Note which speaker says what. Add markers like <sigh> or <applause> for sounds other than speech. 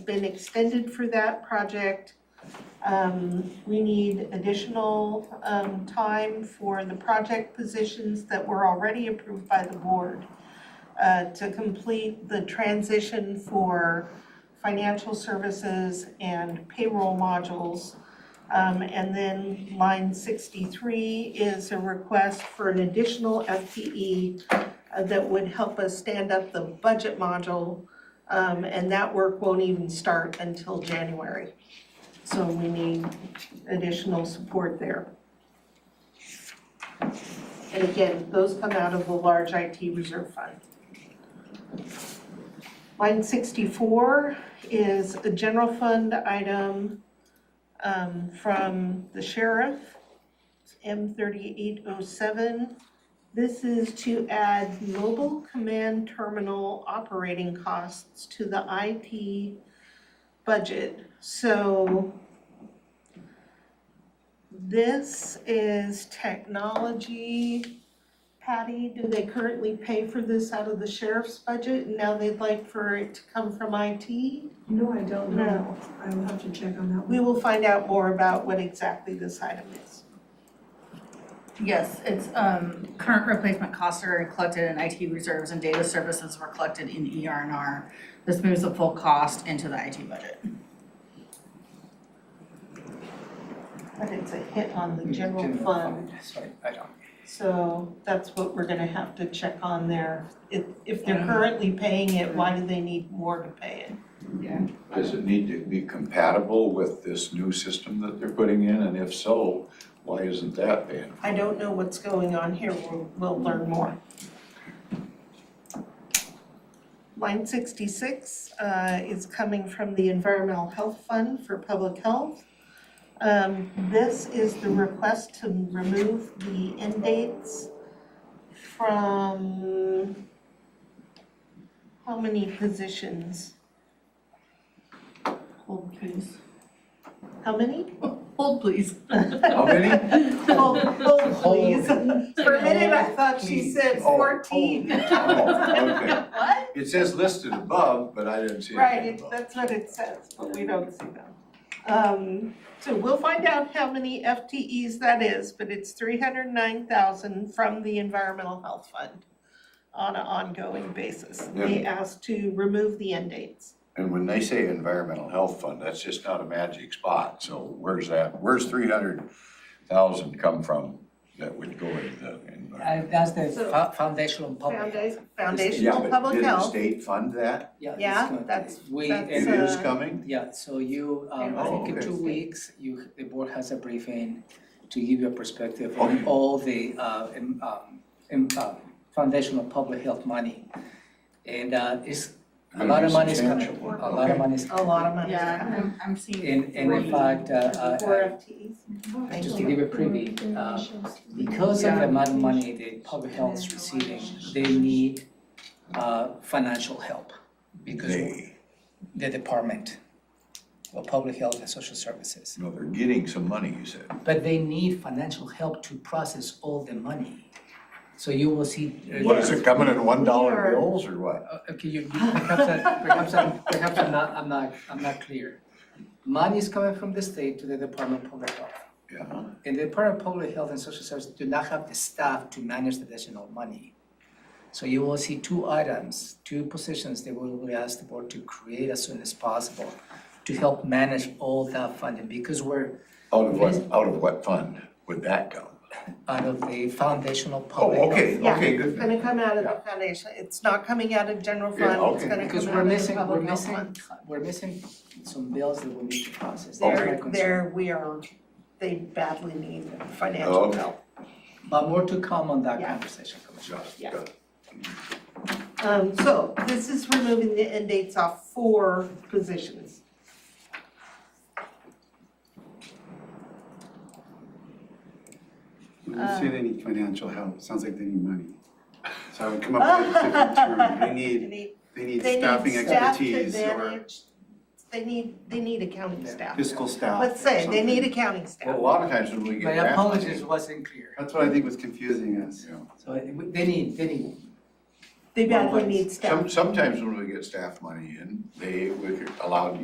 Speaker 1: been extended for that project. Um, we need additional, um, time for the project positions that were already approved by the board uh, to complete the transition for financial services and payroll modules. Um, and then line sixty-three is a request for an additional FTE uh, that would help us stand up the budget module. Um, and that work won't even start until January. So we need additional support there. And again, those come out of the large IT reserve fund. Line sixty-four is a general fund item um, from the sheriff, M thirty-eight oh seven. This is to add mobile command terminal operating costs to the IT budget. So this is technology. Patty, do they currently pay for this out of the sheriff's budget? and Now they'd like for it to come from IT?
Speaker 2: No, I don't
Speaker 1: No.
Speaker 2: know. I will have to check on that one.
Speaker 1: We will find out more about what exactly this item is.
Speaker 3: Yes, it's um current replacement costs are collected in IT reserves and data services were collected in ER and R. This moves the full cost into the IT budget.
Speaker 1: But it's a hit on the general
Speaker 4: General
Speaker 1: fund,
Speaker 4: fund, sorry, I don't.
Speaker 1: so that's what we're gonna have to check on there. If, if they're
Speaker 3: Yeah.
Speaker 1: currently paying it, why do they need more to pay it?
Speaker 5: Does it need to be compatible with this new system that they're putting in, and if so, why isn't that banned?
Speaker 1: I don't know what's going on here, we'll, we'll learn more. Line sixty-six, uh, is coming from the Environmental Health Fund for Public Health. Um, this is the request to remove the end dates from how many positions?
Speaker 3: Hold please.
Speaker 1: How many?
Speaker 3: Hold please.
Speaker 1: <laughs>
Speaker 5: How many?
Speaker 1: Hold, hold oh, please.
Speaker 4: Hold.
Speaker 1: For a minute, I thought she said
Speaker 5: Oh,
Speaker 1: fourteen.
Speaker 5: oh, oh, okay.
Speaker 1: What?
Speaker 5: It says listed above, but I didn't see
Speaker 1: Right,
Speaker 5: anything
Speaker 1: it-
Speaker 5: above.
Speaker 1: that's what it says, but we don't see them. Um, so we'll find out how many FTEs that is, but it's three hundred nine thousand from the Environmental Health Fund on an ongoing basis. They asked to remove the end dates.
Speaker 5: And when they say environmental health fund, that's just not a magic spot, so where's that, where's three hundred thousand come from that would go into the environment?
Speaker 4: Uh, That's the
Speaker 1: So-
Speaker 4: fo- foundational public. health.
Speaker 1: Founda- Foundational
Speaker 5: Yeah, but
Speaker 1: Public
Speaker 5: did the
Speaker 1: Health,
Speaker 5: state fund that?
Speaker 4: Yeah, it's
Speaker 1: Yeah,
Speaker 4: not-
Speaker 1: that's-
Speaker 4: We,
Speaker 5: It
Speaker 1: that's,
Speaker 4: uh,
Speaker 5: is
Speaker 1: uh,
Speaker 5: coming?
Speaker 4: yeah, so you, um, I
Speaker 5: Oh,
Speaker 4: think in
Speaker 5: okay.
Speaker 4: two weeks, you, the board has a briefing to give you a perspective
Speaker 5: Okay.
Speaker 4: on all the, uh, um, um, um, uh, foundational public health money. And, uh, it's, a lot of money is coming,
Speaker 5: Substantial.
Speaker 4: a lot of money is
Speaker 1: a
Speaker 4: coming.
Speaker 1: lot of money.
Speaker 3: Yeah, I'm I'm seeing
Speaker 4: And, and in
Speaker 3: three.
Speaker 4: fact, uh,
Speaker 1: Four
Speaker 4: uh,
Speaker 1: FTEs.
Speaker 4: uh,
Speaker 1: Thank
Speaker 4: just to
Speaker 1: you.
Speaker 4: give you a preview, uh, Because of the amount of money that public health is receiving, they need uh financial help. Because
Speaker 5: They,
Speaker 4: the department of public health and social services.
Speaker 5: no, they're getting some money, you said.
Speaker 4: But they need financial help to process all the money. So you will see.
Speaker 5: What, is it coming in one dollar
Speaker 1: Weird.
Speaker 5: bills or what?
Speaker 4: Uh, Okay, you, you- perhaps I, perhaps I'm, perhaps I'm not, I'm not, I'm not clear. Money is coming from the state to the Department of Public Health.
Speaker 5: Yeah,
Speaker 4: And the Department of Public Health and Social Services do not have the staff to manage the additional money. So you will see two items, two positions that we will ask the board to create as soon as possible to help manage all that funding, because we're
Speaker 5: out of what, out of what fund would that come?
Speaker 4: out of the foundational
Speaker 5: Oh,
Speaker 4: public health.
Speaker 5: okay,
Speaker 1: Yeah,
Speaker 5: okay,
Speaker 1: It's
Speaker 5: good.
Speaker 1: gonna come out of the foundation, it's not coming out of general
Speaker 5: Yeah,
Speaker 1: fund, it's
Speaker 5: okay.
Speaker 1: gonna
Speaker 4: Because
Speaker 1: come
Speaker 4: we're
Speaker 1: out of the
Speaker 4: missing, we're
Speaker 1: public health
Speaker 4: missing,
Speaker 1: fund.
Speaker 4: we're missing some bills that we need to process. That's my
Speaker 1: There,
Speaker 4: concern.
Speaker 1: there, we are, they badly need financial
Speaker 4: Oh,
Speaker 5: Okay.
Speaker 1: help.
Speaker 4: But more to come on that
Speaker 1: Yeah.
Speaker 4: conversation, Commissioner.
Speaker 5: Got it,
Speaker 1: Yeah.
Speaker 5: got it.
Speaker 1: Um, so this is removing the end dates off four
Speaker 4: <laughs>
Speaker 1: positions.
Speaker 6: When you say they need financial help, it sounds like they need money. So I would come up with a
Speaker 1: <laughs>
Speaker 6: different term. They
Speaker 1: They
Speaker 6: need,
Speaker 1: need,
Speaker 6: they need
Speaker 1: they need
Speaker 6: staffing
Speaker 1: staff to
Speaker 6: expertise or
Speaker 1: manage, they need, they need accounting
Speaker 4: Yeah.
Speaker 1: staff.
Speaker 6: fiscal staff
Speaker 1: Let's
Speaker 6: or
Speaker 1: say, they need
Speaker 6: something.
Speaker 1: accounting
Speaker 5: Well,
Speaker 1: staff.
Speaker 5: a lot of times when we
Speaker 4: My
Speaker 5: get that money-
Speaker 4: apologies wasn't clear.
Speaker 6: That's what I think was confusing us.
Speaker 5: Yeah.
Speaker 4: So uh, we- they need, they need
Speaker 1: They badly
Speaker 4: Well,
Speaker 1: need staff.
Speaker 5: Some, sometimes when we get staff money in, they, we're allowed to